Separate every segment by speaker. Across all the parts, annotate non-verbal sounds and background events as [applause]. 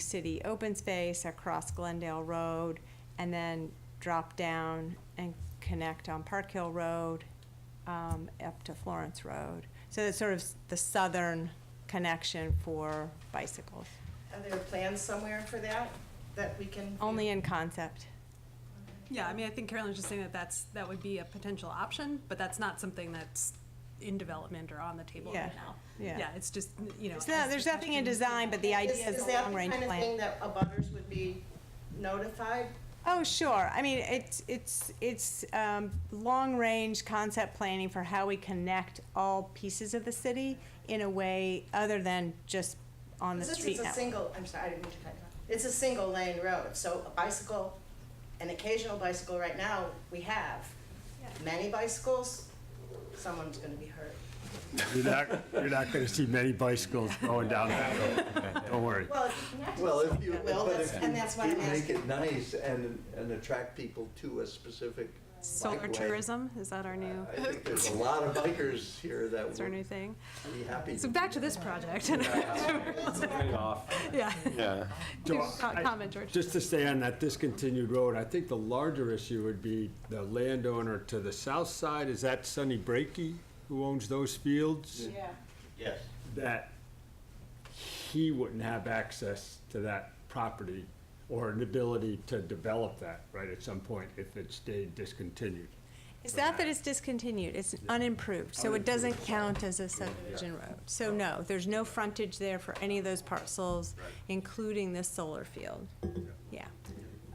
Speaker 1: city open space across Glendale Road, and then drop down and connect on Park Hill Road um, up to Florence Road. So that's sort of s- the southern connection for bicycles,
Speaker 2: Are there plans somewhere for that, that we can?
Speaker 1: only in concept.
Speaker 3: Yeah, I mean, I think Carolyn's just saying that that's, that would be a potential option, but that's not something that's in development or on the table right
Speaker 1: Yeah,
Speaker 3: now.
Speaker 1: yeah.
Speaker 3: Yeah, it's just, you know.
Speaker 1: It's not-
Speaker 3: as
Speaker 1: There's
Speaker 3: the
Speaker 1: nothing in
Speaker 3: question-
Speaker 1: design, but the idea is a long-range
Speaker 2: Is that the kind of
Speaker 1: plan.
Speaker 2: thing that abutters would be notified?
Speaker 1: Oh, sure. I mean, it's, it's, it's um, long-range concept planning for how we connect all pieces of the city in a way other than just on the street
Speaker 2: This is a
Speaker 1: network.
Speaker 2: single, I'm sorry, I didn't mean to cut you off. It's a single lane road, so a bicycle, an occasional bicycle right now, we have. Many bicycles, someone's gonna be hurt.
Speaker 4: You're not, you're not gonna see many bicycles going down that road, don't worry.
Speaker 2: Well, if you connect
Speaker 5: Well,
Speaker 2: it,
Speaker 5: if you,
Speaker 2: Well,
Speaker 5: but
Speaker 2: that's-
Speaker 5: if
Speaker 2: and that's
Speaker 5: you
Speaker 2: why I'm
Speaker 5: do make
Speaker 2: asking.
Speaker 5: it nice and, and attract people to a specific
Speaker 3: [laughs] Solar
Speaker 5: bikeway,
Speaker 3: tourism, is that our new,
Speaker 5: I think there's a lot of bikers here that
Speaker 3: is our new
Speaker 5: would
Speaker 3: thing?
Speaker 5: be happy.
Speaker 3: So
Speaker 5: to
Speaker 3: back to this project. [laughs] Yeah. [laughs]
Speaker 6: Yeah.
Speaker 3: Do
Speaker 4: So
Speaker 3: co-
Speaker 4: I-
Speaker 3: Comment, George.
Speaker 4: Just to stay on that discontinued road, I think the larger issue would be the landowner to the south side, is that Sonny Brakey who owns those fields?
Speaker 2: Yeah.
Speaker 5: Yes.
Speaker 4: That he wouldn't have access to that property or an ability to develop that, right, at some point if it stayed discontinued.
Speaker 1: It's not that it's discontinued, it's unimproved, so it doesn't count as a subdivision road. So no, there's no frontage there for any of those parcels, including this solar field. Yeah.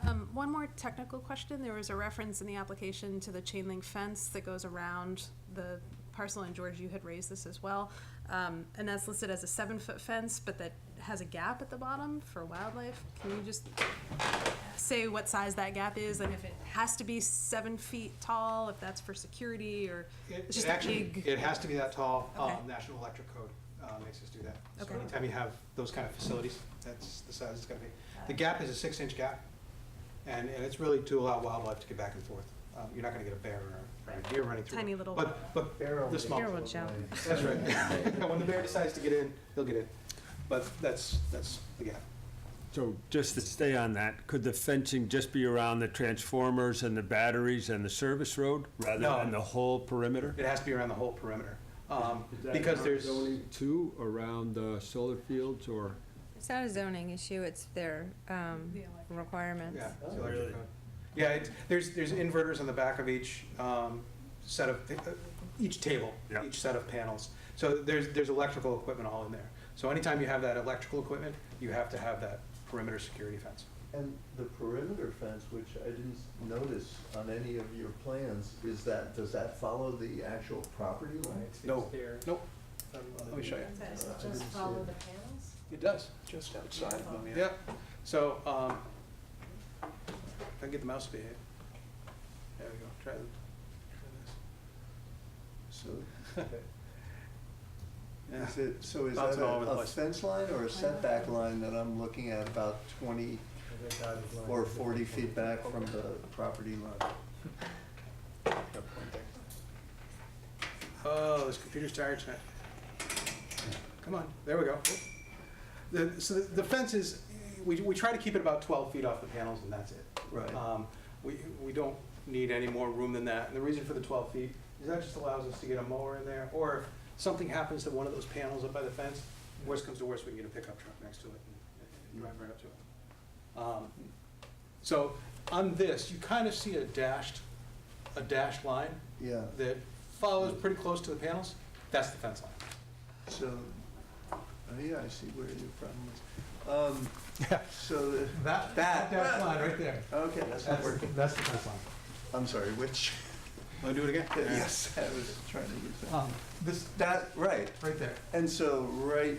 Speaker 3: Um, one more technical question. There was a reference in the application to the chain link fence that goes around the parcel, and George, you had raised this as well. Um, and that's listed as a seven foot fence, but that has a gap at the bottom for wildlife. Can you just say what size that gap is and if it has to be seven feet tall, if that's for security or
Speaker 7: It
Speaker 3: it's
Speaker 7: it
Speaker 3: just a
Speaker 7: actually,
Speaker 3: big?
Speaker 7: it has to be that tall. Um,
Speaker 3: Okay.
Speaker 7: National Electric Code uh, makes us do that. So
Speaker 3: Okay.
Speaker 7: anytime you have those kind of facilities, that's the size it's gonna be. The gap is a six-inch gap, and, and it's really to allow wildlife to get back and forth. Um, You're not gonna get a bear or or a deer running through.
Speaker 3: Tiny
Speaker 7: it.
Speaker 3: little-
Speaker 7: But, but the small.
Speaker 3: Bear will jump.
Speaker 7: That's
Speaker 3: [laughs]
Speaker 7: right. [laughs] When the bear decides to get in, he'll get in. But that's, that's the gap.
Speaker 4: So just to stay on that, could the fencing just be around the transformers and the batteries and the service road rather
Speaker 7: No.
Speaker 4: than the whole perimeter?
Speaker 7: It has to be around the whole perimeter, um, because there's.
Speaker 4: Two around the solar fields or?
Speaker 1: It's not a zoning issue, it's their um, requirements.
Speaker 7: Yeah, it's the electric code. Yeah, it's, there's, there's inverters on the back of each, um, set of, uh, each table,
Speaker 4: Yeah.
Speaker 7: each set of panels. So there's, there's electrical equipment all in there. So anytime you have that electrical equipment, you have to have that perimeter security fence.
Speaker 5: And the perimeter fence, which I didn't notice on any of your plans, is that, does that follow the actual property line? Uh,
Speaker 7: No, nope. Let me show you.
Speaker 5: Just follow the
Speaker 7: It does. Just outside Yeah, so, um, if I can get the mouse to behave. There we go, try the- try this. [laughs] So. Yeah.
Speaker 5: Is it, so is that
Speaker 7: Bouncing all over
Speaker 5: a
Speaker 7: the
Speaker 5: a
Speaker 7: place.
Speaker 5: fence line or a setback line that I'm looking at about twenty or forty feet back from the property line?
Speaker 7: Oh, this computer's tired tonight. Come on, there we go. The, so the the fence is, we, we try to keep it about twelve feet off the panels and that's it.
Speaker 5: Right.
Speaker 7: Um, we, we don't need any more room than that. And the reason for the twelve feet is that just allows us to get a mower in there, or if something happens to one of those panels up by the fence, worst comes to worst, we can get a pickup truck next to it and- and drive right up to it. Um, So on this, you kind of see a dashed, a dashed line
Speaker 5: Yeah,
Speaker 7: that follows pretty close to the panels, that's the fence line.
Speaker 5: so, oh yeah, I see where your problem is. Um, so, the-
Speaker 7: That,
Speaker 5: That.
Speaker 7: dash line right there.
Speaker 5: okay, that's not working.
Speaker 7: that's the fence line.
Speaker 5: I'm sorry, which,
Speaker 7: Want to do it again?
Speaker 5: [laughs] yes, I was trying to use that.
Speaker 7: Um, This,
Speaker 5: That, right,
Speaker 7: right there.
Speaker 5: and so right,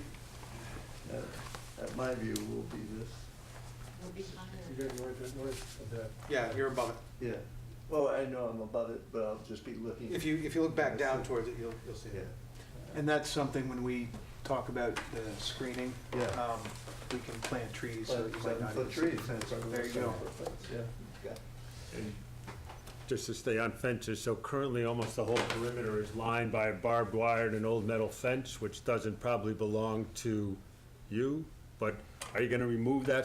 Speaker 5: uh, at my view, will be this,
Speaker 7: Yeah, you're above it.
Speaker 5: yeah. Well, I know I'm above it, but I'll just be looking.
Speaker 7: If you, if you look back down towards it, you'll, you'll see
Speaker 5: Yeah.
Speaker 7: it. And that's something when we talk about the screening.
Speaker 5: Yeah.
Speaker 7: um, We can plant trees so that you might not.
Speaker 5: Seven-foot
Speaker 7: even see
Speaker 5: trees.
Speaker 7: it. There you go.
Speaker 5: Yeah.
Speaker 4: Just to stay on fences, so currently almost the whole perimeter is lined by barbed wire and an old metal fence, which doesn't probably belong to you, but Are you gonna remove that